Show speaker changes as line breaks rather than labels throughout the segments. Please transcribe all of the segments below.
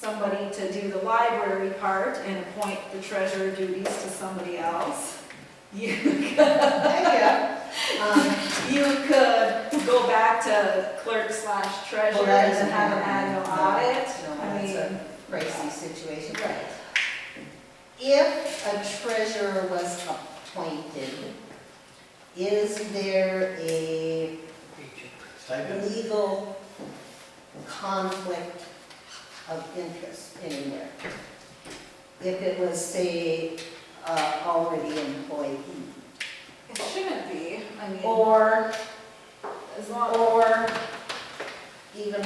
to do the library part and appoint the treasurer duties to somebody else. You
Yeah, um,
you could go back to clerk slash treasurer
that
and
isn't
have an
happening.
annual audit.
No,
I
that's
mean,
Crazy situation.
right.
If a treasurer was appointed, is there a
Stipend?
legal conflict of interest anywhere? If it was, say, uh, already employed,
It shouldn't be, I mean,
or,
as long,
or even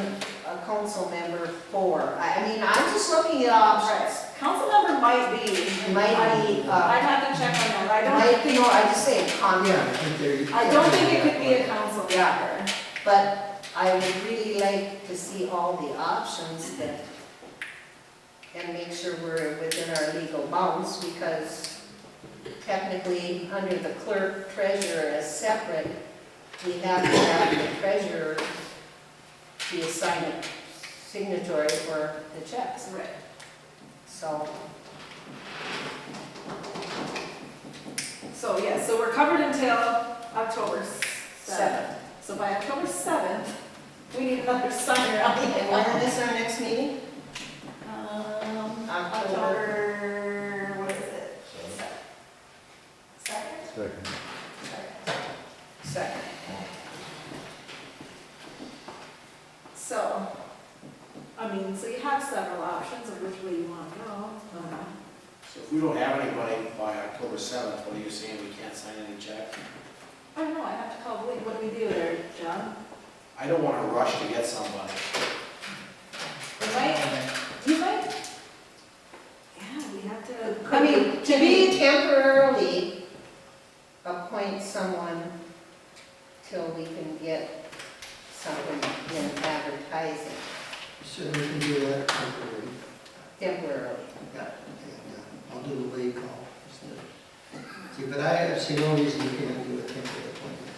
a council member for, I I mean, I'm just looking at
right,
options.
council member might be.
Might be,
I'd
uh,
have to check on that, I don't
might, you know, I just say conflict.
I think there-
I don't think it could be a council member.
But I would really like to see all the options that, and make sure we're within our legal bounds, because technically, under the clerk treasurer as separate, we have to have the treasurer be a sign- signatory for the checks,
Right.
so.
So, yeah, so we're covered until October seventh. So by October seventh, we need another signer on
And
the.
when is our next meeting?
Um,
October.
October, what is it? Second?
Second.
Second.
So, I mean, so you have several options of which way you want to go. Uh,
So if we don't have anybody by October seventh, what are you saying, we can't sign any check?
I don't know, I have to call Blake, what do we do there, John?
I don't wanna rush to get somebody.
We might, you might, yeah, we have to.
I mean, to be temporarily appoint someone till we can get someone in advertising
So we can do that temporarily.
temporarily.
Yeah, and, uh, I'll do the way you call instead. See, but I have seen no reason you can't do a temporary appointment.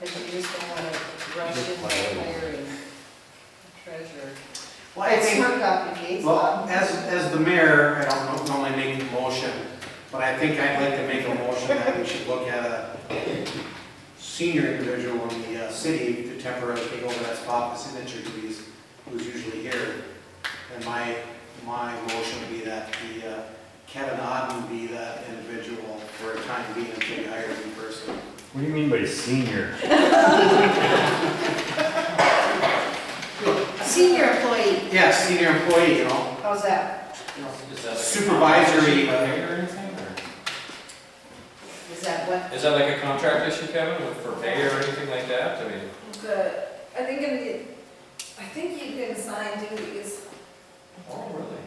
Because you just don't want to rush into hiring a treasurer.
Well, I
It's
think,
work obligations.
well, as, as the mayor, I don't normally make the motion, but I think I'd like to make a motion that we should look at a senior individual in the uh, city to temporarily take over that spot, the signature duties, who's usually here. And my, my motion would be that the, uh, Kevin Oden be that individual for a time being until we hire a new person.
What do you mean by senior?
Senior employee,
Yeah, senior employee, you know,
how's that?
Is that like a
Supervisory-
contract issue by mayor or anything, or-
Is that what?
Is that like a contract issue, Kevin, with, for mayor or anything like that? I mean,
The, I think in the, I think you can assign duties,
oh, really?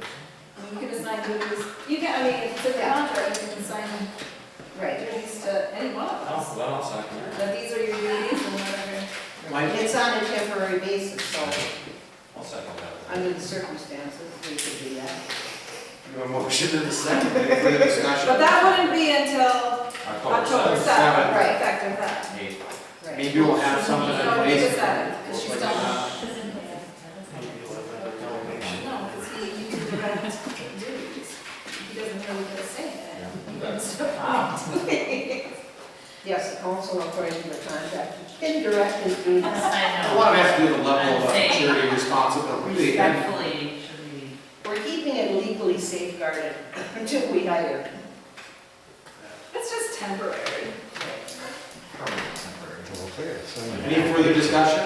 I mean, you can assign duties, you can, I mean, it's in the contract, you can assign
Right.
duties to anyone
Oh,
else.
well, I'll second that.
But these are your duties and whatever.
Mike?
It's on a temporary basis, so
I'll second that.
under the circumstances, we could do that.
you have a motion in a second, any further discussion?
But that wouldn't be until
Oh,
October
seventh.
seventh,
Right.
effective then.
Eight.
Right.
Maybe we'll have something in
No,
place.
it's the seventh, 'cause she's done. No, because he, he did the right duties. He doesn't really get a say in it. So,
Yes, the council according to the contract can direct his duties.
A
I know.
lot of it has to do with the level of
I'd say-
charity responsibility. And
Respectfully, should we?
We're keeping it legally safeguarded until we hire.
It's just temporary.
Any further discussion?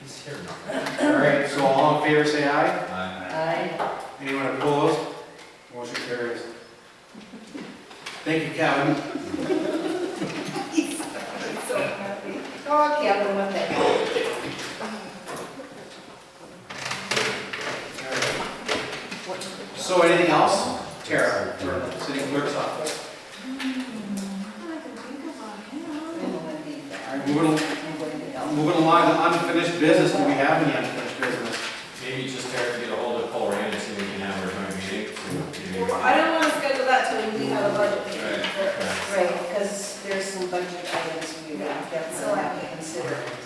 He's here now. Uh,
All right, so all in favor, say aye.
Aye.
I,
Anyone opposed? Motion carries. Thank you, Kevin.
It's so happy.
oh, Kevin, what the hell?
All right. So anything else? Tara, for city clerk's office.
I can think of
I'm
one, yeah.
gonna be
All right,
there.
Moving
I'm going to help.
moving along to unfinished business, do we have any unfinished business?
Maybe just try to get a hold of Paul Rand and see if we can have our joint meeting. so-
Well, I don't want to schedule that till we have a budget meeting
Right,
first.
right.
Right, because there's some budget items we have, that's all I have to consider.